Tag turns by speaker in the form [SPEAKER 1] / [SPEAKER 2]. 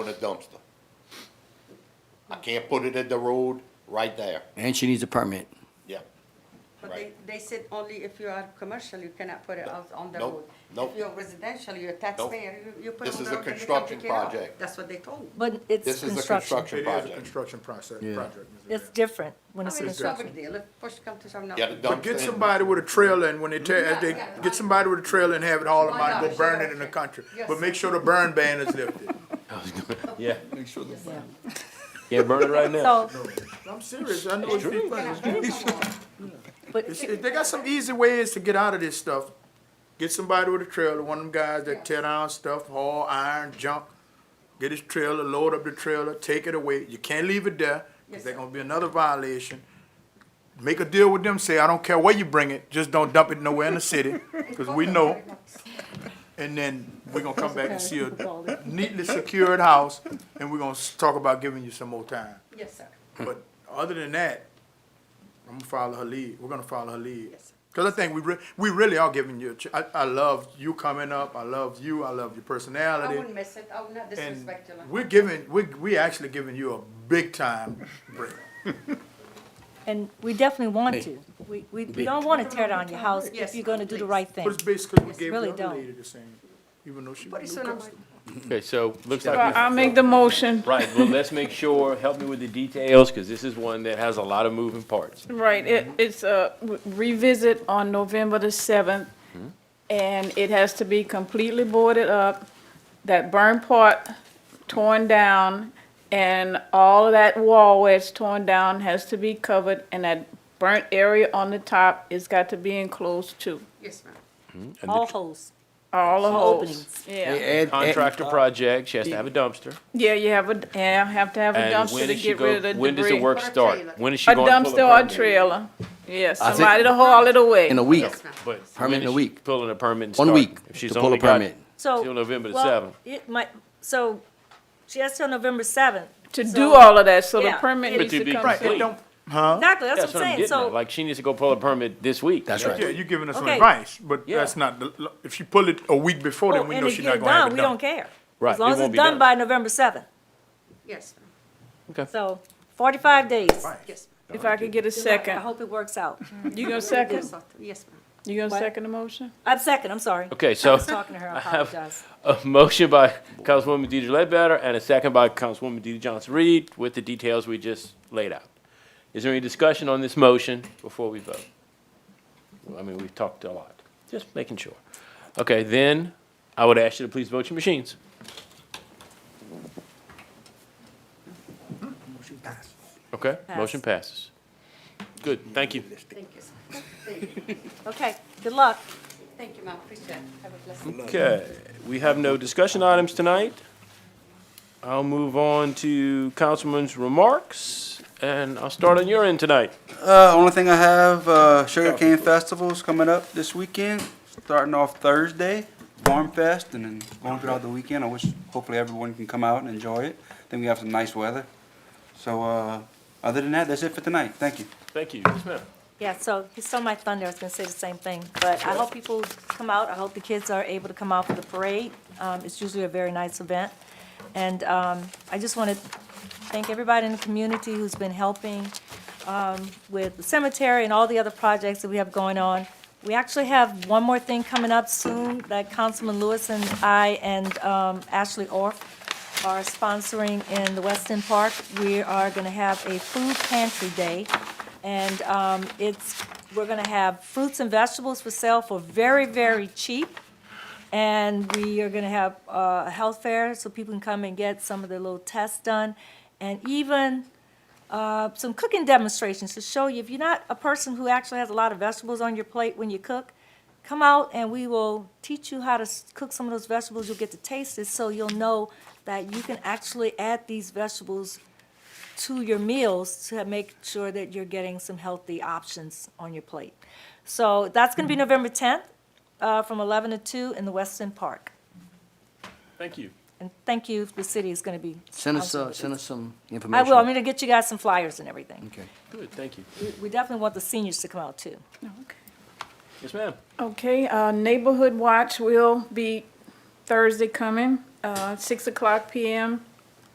[SPEAKER 1] in a dumpster. I can't put it at the road, right there,
[SPEAKER 2] And she needs a permit.
[SPEAKER 1] yeah.
[SPEAKER 3] But they, they said only if you are commercial, you cannot put it out on the
[SPEAKER 1] Nope,
[SPEAKER 3] road.
[SPEAKER 1] nope.
[SPEAKER 3] If you're residential, you're a taxpayer, you, you put it
[SPEAKER 1] This
[SPEAKER 3] on
[SPEAKER 1] is
[SPEAKER 3] the
[SPEAKER 1] a
[SPEAKER 3] road and they come
[SPEAKER 1] construction
[SPEAKER 3] pick it up.
[SPEAKER 1] project.
[SPEAKER 3] That's what they told me.
[SPEAKER 4] But it's
[SPEAKER 1] This is a
[SPEAKER 4] construction.
[SPEAKER 1] construction
[SPEAKER 5] It is a
[SPEAKER 1] project.
[SPEAKER 5] construction process,
[SPEAKER 2] Yeah.
[SPEAKER 5] project. Mr.
[SPEAKER 4] It's
[SPEAKER 5] Dale.
[SPEAKER 4] different when
[SPEAKER 3] I
[SPEAKER 4] it's
[SPEAKER 3] mean, it's no
[SPEAKER 4] construction.
[SPEAKER 3] big deal, if push come to shove now.
[SPEAKER 1] Yeah, the
[SPEAKER 5] But get
[SPEAKER 1] dumpster,
[SPEAKER 5] somebody with a trailer and when they tear, as they,
[SPEAKER 3] Yeah, yeah.
[SPEAKER 5] get somebody with a trailer and have it all in
[SPEAKER 3] Why
[SPEAKER 5] mind, go
[SPEAKER 3] not?
[SPEAKER 5] burn it in the country.
[SPEAKER 3] Yes.
[SPEAKER 5] But make sure the burn ban is lifted.
[SPEAKER 6] Yeah. Make sure the. Yeah, burn it right now.
[SPEAKER 4] So,
[SPEAKER 5] I'm serious, I know it's been fun.
[SPEAKER 4] but
[SPEAKER 5] It's- it- They got some easy ways to get out of this stuff. Get somebody with a trailer, one of them guys that tear down stuff, haul iron, junk. Get his trailer, load up the trailer, take it away. You can't leave it there,
[SPEAKER 3] Yes,
[SPEAKER 5] cause there's
[SPEAKER 3] sir.
[SPEAKER 5] gonna be another violation. Make a deal with them, say, I don't care where you bring it, just don't dump it nowhere in the city, cause we know. And then we're gonna come back and see a neatly secured house, and we're gonna s- talk about giving you some more time.
[SPEAKER 3] Yes, sir.
[SPEAKER 5] But
[SPEAKER 2] Hmm.
[SPEAKER 5] other than that, I'm gonna follow her lead. We're gonna follow her lead.
[SPEAKER 3] Yes, sir.
[SPEAKER 5] Cause I think we re- we really are giving you, a ch- I, I love you coming up. I love you. I love your
[SPEAKER 3] I
[SPEAKER 5] personality.
[SPEAKER 3] wouldn't miss it, I would not
[SPEAKER 5] And
[SPEAKER 3] disrespect you. like-
[SPEAKER 5] we're giving, we, we actually giving you a big time break.
[SPEAKER 4] and we definitely want to. We, we we don't want to tear down your house if
[SPEAKER 3] Yes,
[SPEAKER 4] you're going to do the
[SPEAKER 3] please.
[SPEAKER 4] right
[SPEAKER 5] But
[SPEAKER 4] thing.
[SPEAKER 5] it's basically we
[SPEAKER 3] Yes,
[SPEAKER 5] gave
[SPEAKER 4] really
[SPEAKER 5] the other
[SPEAKER 4] don't.
[SPEAKER 5] lady the same, even though she
[SPEAKER 3] Pretty
[SPEAKER 5] was a
[SPEAKER 3] soon
[SPEAKER 5] new
[SPEAKER 3] I'm
[SPEAKER 5] customer.
[SPEAKER 6] Okay, so looks
[SPEAKER 7] All right, I'll
[SPEAKER 6] like,
[SPEAKER 7] make the motion.
[SPEAKER 6] right, well, let's make sure, help me with the details, because this is one that has a lot of moving parts.
[SPEAKER 7] Right, it, it's a revisit on November the seventh,
[SPEAKER 6] Hmm?
[SPEAKER 7] and it has to be completely boarded up, that burn part torn down, and all of that wall where it's torn down has to be covered, and that burnt area on the top has got to be enclosed too,
[SPEAKER 3] Yes, ma'am.
[SPEAKER 4] All holes.
[SPEAKER 7] all the
[SPEAKER 4] Openings.
[SPEAKER 7] holes.
[SPEAKER 2] Add-
[SPEAKER 7] Yeah,
[SPEAKER 2] add-
[SPEAKER 6] Contractor project, she has to have a dumpster.
[SPEAKER 7] yeah, you have uh, a, yeah, have to have a
[SPEAKER 6] And
[SPEAKER 7] dumpster
[SPEAKER 6] when
[SPEAKER 7] to
[SPEAKER 6] is she
[SPEAKER 7] get rid of the
[SPEAKER 6] go,
[SPEAKER 7] debris.
[SPEAKER 6] when does the work
[SPEAKER 3] Or a
[SPEAKER 6] start?
[SPEAKER 3] trailer.
[SPEAKER 6] When is she
[SPEAKER 7] A
[SPEAKER 6] going to pull
[SPEAKER 7] dumpster
[SPEAKER 6] a
[SPEAKER 7] or a
[SPEAKER 6] permit?
[SPEAKER 7] trailer, yes,
[SPEAKER 2] I think-
[SPEAKER 7] somebody to haul it away.
[SPEAKER 2] In a week,
[SPEAKER 3] Yes, ma'am.
[SPEAKER 6] But
[SPEAKER 2] Permit
[SPEAKER 6] when
[SPEAKER 2] in a
[SPEAKER 6] is she
[SPEAKER 2] week.
[SPEAKER 6] Pulling a permit and
[SPEAKER 2] one
[SPEAKER 6] starting?
[SPEAKER 2] week
[SPEAKER 6] If
[SPEAKER 2] to
[SPEAKER 6] she's
[SPEAKER 2] pull
[SPEAKER 6] only
[SPEAKER 2] a
[SPEAKER 6] got
[SPEAKER 2] permit.
[SPEAKER 4] So.
[SPEAKER 6] Till November the
[SPEAKER 4] well,
[SPEAKER 6] seventh.
[SPEAKER 4] It might, so she has till November seventh.
[SPEAKER 7] to do all of that, so the
[SPEAKER 4] yeah,
[SPEAKER 7] permit
[SPEAKER 4] it-
[SPEAKER 7] needs
[SPEAKER 6] But to
[SPEAKER 7] to
[SPEAKER 6] be
[SPEAKER 7] come.
[SPEAKER 5] Right,
[SPEAKER 7] through.
[SPEAKER 5] it don't,
[SPEAKER 4] Exactly, that's
[SPEAKER 6] That's
[SPEAKER 4] what I'm saying.
[SPEAKER 6] getting at,
[SPEAKER 4] So,
[SPEAKER 6] like, she needs to go pull a permit this week.
[SPEAKER 2] That's
[SPEAKER 5] yeah,
[SPEAKER 2] right.
[SPEAKER 5] you're giving us some
[SPEAKER 4] Okay.
[SPEAKER 5] advice, but
[SPEAKER 6] Yeah.
[SPEAKER 5] that's not, the if you pull it a week before, then
[SPEAKER 4] oh,
[SPEAKER 5] we
[SPEAKER 4] and
[SPEAKER 5] know
[SPEAKER 4] if
[SPEAKER 5] she's not
[SPEAKER 4] you're
[SPEAKER 5] gonna have
[SPEAKER 4] done,
[SPEAKER 5] it
[SPEAKER 4] we
[SPEAKER 5] done.
[SPEAKER 4] don't care.
[SPEAKER 6] Right,
[SPEAKER 4] As long
[SPEAKER 6] it
[SPEAKER 4] as
[SPEAKER 6] won't
[SPEAKER 4] it's
[SPEAKER 6] be
[SPEAKER 4] done
[SPEAKER 6] done.
[SPEAKER 4] by November seventh.
[SPEAKER 3] Yes, ma'am.
[SPEAKER 4] So forty-five days.
[SPEAKER 5] Right.
[SPEAKER 3] Yes, ma'am.
[SPEAKER 7] If I could get a
[SPEAKER 4] I
[SPEAKER 7] second,
[SPEAKER 4] hope it works out.
[SPEAKER 7] you gonna
[SPEAKER 3] Yes,
[SPEAKER 7] second?
[SPEAKER 3] sir. Yes, ma'am.
[SPEAKER 7] You gonna
[SPEAKER 4] What?
[SPEAKER 7] second the motion?
[SPEAKER 4] I'm second, I'm sorry.
[SPEAKER 6] Okay, so.
[SPEAKER 4] I was talking to her, I
[SPEAKER 6] have-
[SPEAKER 4] apologize.
[SPEAKER 6] A motion by Councilwoman Deidre Ledbetter and a second by Councilwoman Deidre Johnson-Reed with the details we just laid out. Is there any discussion on this motion before we vote? Well, I mean, we've talked a lot, just making sure. Okay, then I would ask you to please vote your machines. Okay, motion passes. Good, thank you.
[SPEAKER 3] Thank you, sir. Thank you.
[SPEAKER 4] Okay, good luck.
[SPEAKER 3] Thank you, ma'am, appreciate it. Have a blessed day.
[SPEAKER 6] Okay, we have no discussion items tonight. I'll move on to Councilman's remarks, and I'll start on your end tonight.
[SPEAKER 8] Uh, only thing I have, uh, Sugar Cane Festival's coming up this weekend, starting off Thursday, Farm Fest, and then going throughout the weekend. I wish, hopefully everyone can come out and enjoy it. Then we have some nice weather. So, uh, other than that, that's it for tonight. Thank you.
[SPEAKER 6] Thank you. Yes, ma'am.
[SPEAKER 4] Yeah, so he stole my thunder, I was gonna say the same thing, but I hope people come out, I hope the kids are able to come out for the parade. Um, it's usually a very nice event, and, um, I just wanna thank everybody in the community who's been helping, um, with the cemetery and all the other projects that we have going on. We actually have one more thing coming up soon, that Councilman Lewis and I and, um, Ashley Orff are sponsoring in the Weston Park. We are going to have a food pantry day, and um, it's, we're going to have fruits and vegetables for sale for very, very cheap. And we are going to have uh, a health fair, so people can come and get some of their little tests done, and even uh, some cooking demonstrations to show you, if you're not a person who actually has a lot of vegetables on your plate when you cook, come out and we will teach you how to s- cook some of those vegetables. You'll get to taste it, so you'll know that you can actually add these vegetables to your meals to make sure that you're getting some healthy options on your plate. So that's going to be
[SPEAKER 2] Mm-hmm.
[SPEAKER 4] November 10th, uh, from 11 to 2 in the Weston Park.
[SPEAKER 6] Thank you.
[SPEAKER 4] And thank you, the city is going to be.
[SPEAKER 2] Send us,
[SPEAKER 4] sponsoring
[SPEAKER 2] uh,
[SPEAKER 4] this.
[SPEAKER 2] send us some
[SPEAKER 4] I
[SPEAKER 2] information.
[SPEAKER 4] will, I'm going to get you guys some flyers and everything.
[SPEAKER 2] Okay.
[SPEAKER 6] Good, thank you.
[SPEAKER 4] We- We definitely want the seniors to come out too.
[SPEAKER 6] Yes, ma'am.
[SPEAKER 7] Okay, uh, Neighborhood Watch will be Thursday coming, uh, six o'clock PM